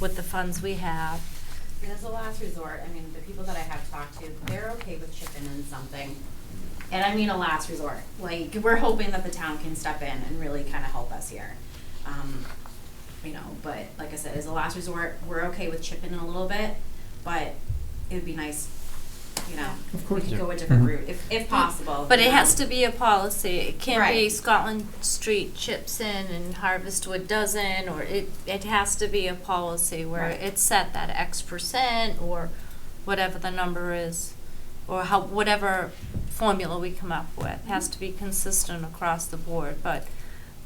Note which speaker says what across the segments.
Speaker 1: with the funds we have.
Speaker 2: And as a last resort, I mean, the people that I have talked to, they're okay with chipping in something. And I mean a last resort, like, we're hoping that the town can step in and really kind of help us here. Um, you know, but like I said, as a last resort, we're okay with chipping in a little bit, but it'd be nice, you know,
Speaker 3: Of course. Mm-hmm.
Speaker 2: we could go a different
Speaker 4: Mhm.
Speaker 2: route, if, if possible.
Speaker 1: But
Speaker 2: you
Speaker 1: it
Speaker 2: know.
Speaker 1: has to be a policy. It can't be
Speaker 2: Right.
Speaker 1: Scotland Street chips in and Harvestwood doesn't, or it, it has to be a policy where
Speaker 2: Right.
Speaker 1: it's set that X percent or whatever the number is, or how, whatever formula we come up with, has to be consistent across the board. But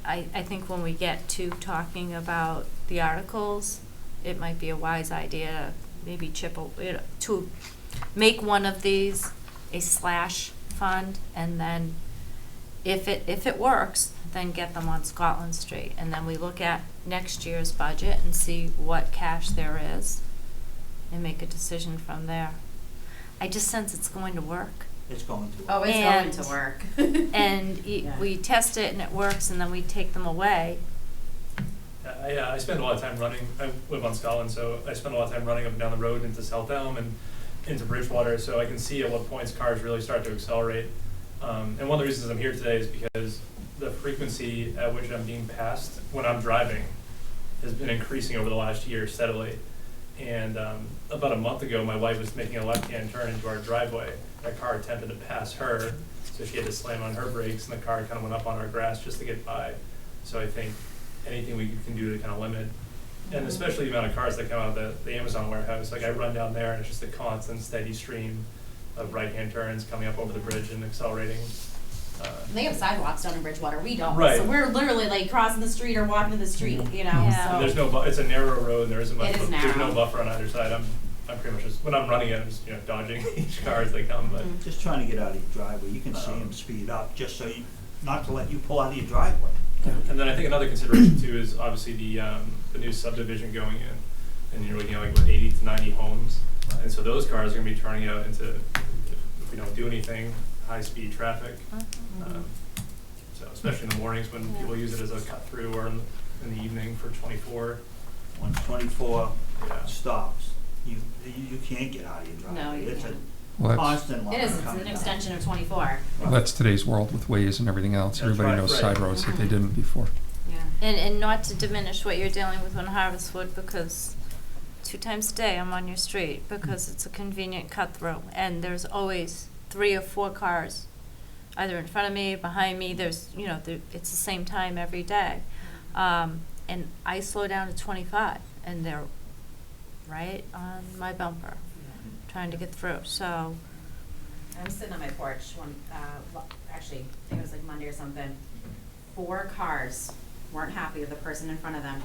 Speaker 1: I, I think when we get to talking about the articles, it might be a wise idea to maybe chip, a- you know, to make one of these a slash fund, and then if it, if it works, then get them on Scotland Street. And then we look at next year's budget and see what cash there is, and make a decision from there. I just sense it's going to work.
Speaker 4: It's going to.
Speaker 2: Oh, it's going to
Speaker 1: And-
Speaker 2: work.
Speaker 1: And y-
Speaker 2: Yeah.
Speaker 1: we test it and it works, and then we take them away.
Speaker 5: I, uh, I spend a lot of time running. I live on Scotland, so I spend a lot of time running up and down the road into South Elm and into Bridgewater, so I can see at what points cars really start to accelerate. Um, and one of the reasons I'm here today is because the frequency at which I'm being passed when I'm driving has been increasing over the last year steadily. And um, about a month ago, my wife was making a left-hand turn into our driveway. A car attempted to pass her, so she had to slam on her brakes, and the car kind of went up on our grass just to get by. So I think anything we can do to kind of limit, and especially the amount of cars that come out of the, the Amazon warehouse. Like I run down there, and it's just a constant, steady stream of right-hand turns coming up over the bridge and accelerating. Uh,
Speaker 2: They have sidewalks down in Bridgewater, we don't, so
Speaker 5: Right.
Speaker 2: we're literally like crossing the street or walking to the street, you know, so.
Speaker 1: Yeah.
Speaker 5: And there's no, bu- it's a narrow road, and there isn't
Speaker 2: Oh.
Speaker 5: much,
Speaker 2: It is
Speaker 5: bu- there's
Speaker 2: narrow.
Speaker 5: no buffer on either side, I'm, I'm pretty much just, when I'm running it, I'm just, you know, dodging each car as they come, but,
Speaker 2: Mhm.
Speaker 4: Just trying to get out of your driveway, you can see
Speaker 5: Um,
Speaker 4: them speed up, just so you, not to let you pull out of your driveway.
Speaker 2: Mm-hmm.
Speaker 5: and then I think another consideration too is obviously the, um, the new subdivision going in, and you're looking at like, what, eighty to ninety homes?
Speaker 4: Right.
Speaker 5: And so those cars are gonna be turning out into, if if we don't do anything, high-speed traffic,
Speaker 2: Mm-hmm.
Speaker 5: um, so especially in the mornings when
Speaker 1: Yeah.
Speaker 5: people use it as a cut-through, or in, in the evening for twenty-four,
Speaker 4: When twenty-four
Speaker 5: yeah.
Speaker 4: stops, you, you you can't get out of your driveway.
Speaker 2: No, you
Speaker 4: It's
Speaker 2: can't.
Speaker 4: a
Speaker 6: Well, that's,
Speaker 4: constant line
Speaker 2: It is, it's
Speaker 4: coming
Speaker 2: an
Speaker 4: down.
Speaker 2: extension of twenty-four.
Speaker 6: well, that's today's world with ways and everything else.
Speaker 5: That's
Speaker 6: Everybody
Speaker 5: right,
Speaker 6: knows
Speaker 5: right.
Speaker 6: side roads that they
Speaker 2: Mhm.
Speaker 6: didn't before.
Speaker 2: Yeah.
Speaker 1: And, and not to diminish what you're dealing with on Harvestwood, because two times a day I'm on your street, because it's a convenient cut through, and there's always three or four cars, either in front of me, behind me, there's, you know, there, it's the same time every day. Um, and I slow down to twenty-five, and they're right on my bumper, trying to get through, so,
Speaker 2: I'm sitting on my porch one, uh, lo- actually, I think it was like Monday or something. Four cars weren't happy with the person in front of them,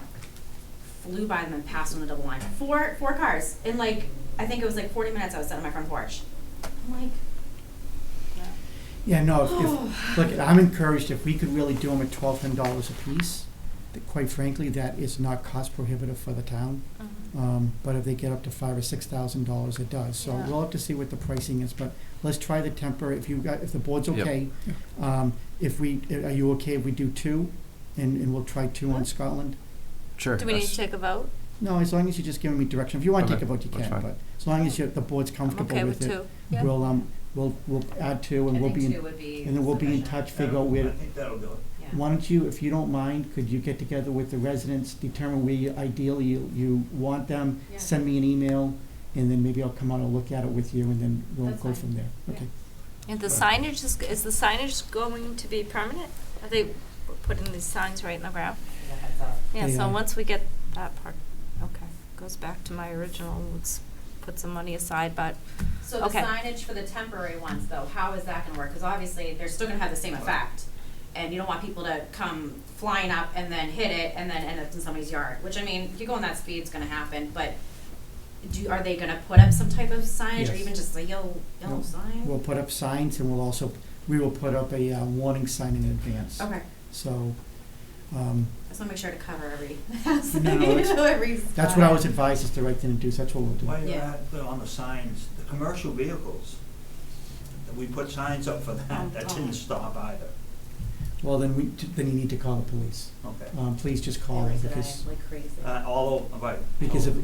Speaker 2: flew by them and passed on the double line. Four, four cars in like, I think it was like forty minutes I was sitting on my front porch. I'm like,
Speaker 1: yeah.
Speaker 3: Yeah, no, if, Oh, if, look, I'm encouraged if we could really do them at twelve hundred dollars apiece, that quite frankly, that is not cost prohibitive for the town.
Speaker 1: Mhm.
Speaker 3: Um, but if they get up to five or six thousand dollars, it does. So
Speaker 1: Yeah.
Speaker 3: we'll have to see what the pricing is, but let's try the temper, if you got, if the board's
Speaker 6: Yep.
Speaker 3: okay. Um, if we, are you okay if we do two, and, and we'll try two on Scotland?
Speaker 7: Sure.
Speaker 1: Do we need to
Speaker 7: that's-
Speaker 1: take a vote?
Speaker 3: No, as long as you're just giving me direction, if you wanna
Speaker 6: Okay,
Speaker 3: take a vote, you
Speaker 6: that's
Speaker 3: can,
Speaker 6: fine.
Speaker 3: but as long as you, the board's
Speaker 1: I'm
Speaker 3: comfortable
Speaker 1: okay with
Speaker 3: with it.
Speaker 1: two. Yeah.
Speaker 3: We'll, um, we'll, we'll add two,
Speaker 2: I
Speaker 3: and we'll
Speaker 2: think
Speaker 3: be,
Speaker 2: two
Speaker 3: in-
Speaker 2: would be
Speaker 3: and then we'll be in
Speaker 2: sufficient.
Speaker 3: touch, figure out
Speaker 4: I
Speaker 3: where,
Speaker 4: think that'll do it.
Speaker 2: Yeah.
Speaker 3: Why don't you, if you don't mind, could you get together with the residents, determine where you ideally you, you want them?
Speaker 2: Yeah.
Speaker 3: Send me an email, and then maybe I'll come out and look at it with you, and then we'll
Speaker 2: That's
Speaker 3: go
Speaker 2: fine.
Speaker 3: from there,
Speaker 2: Yeah.
Speaker 3: okay?
Speaker 1: And
Speaker 3: uh,
Speaker 1: the signage is, is the signage going to be permanent? Are they putting these signs right in the ground?
Speaker 2: Give a heads up.
Speaker 1: Yeah,
Speaker 3: Yeah.
Speaker 1: so once we get that part, okay, goes back to my original, let's put some money aside, but,
Speaker 2: So the
Speaker 1: Okay.
Speaker 2: signage for the temporary ones, though, how is that gonna work? Because obviously, they're still gonna have the same effect. And you don't want people to come flying up and then hit it and then end up in somebody's yard, which I mean, if you're going that speed, it's gonna happen, but do, are they gonna put up some type of signage or
Speaker 3: Yes.
Speaker 2: even just a yellow, yellow
Speaker 3: No,
Speaker 2: sign?
Speaker 3: We'll put up signs, and we'll also, we will put up a, uh, warning sign in advance.
Speaker 2: Okay,
Speaker 3: So, um,
Speaker 2: I just wanna make sure to cover every, house, you
Speaker 3: No, it's-
Speaker 2: know, every
Speaker 3: that's what I was advised, is to write the introduce, that's what we'll do.
Speaker 4: Why you
Speaker 2: Yeah.
Speaker 4: at, on the signs, the commercial vehicles, we put signs up for
Speaker 2: Oh,
Speaker 4: that, that
Speaker 2: oh.
Speaker 4: didn't stop either,
Speaker 3: Well, then we, then you need to call the police.
Speaker 4: okay.
Speaker 3: Um, please just
Speaker 2: They
Speaker 3: call
Speaker 2: were
Speaker 3: them,
Speaker 2: today,
Speaker 3: because,
Speaker 2: like crazy.
Speaker 4: Uh, all over, right.
Speaker 3: because if,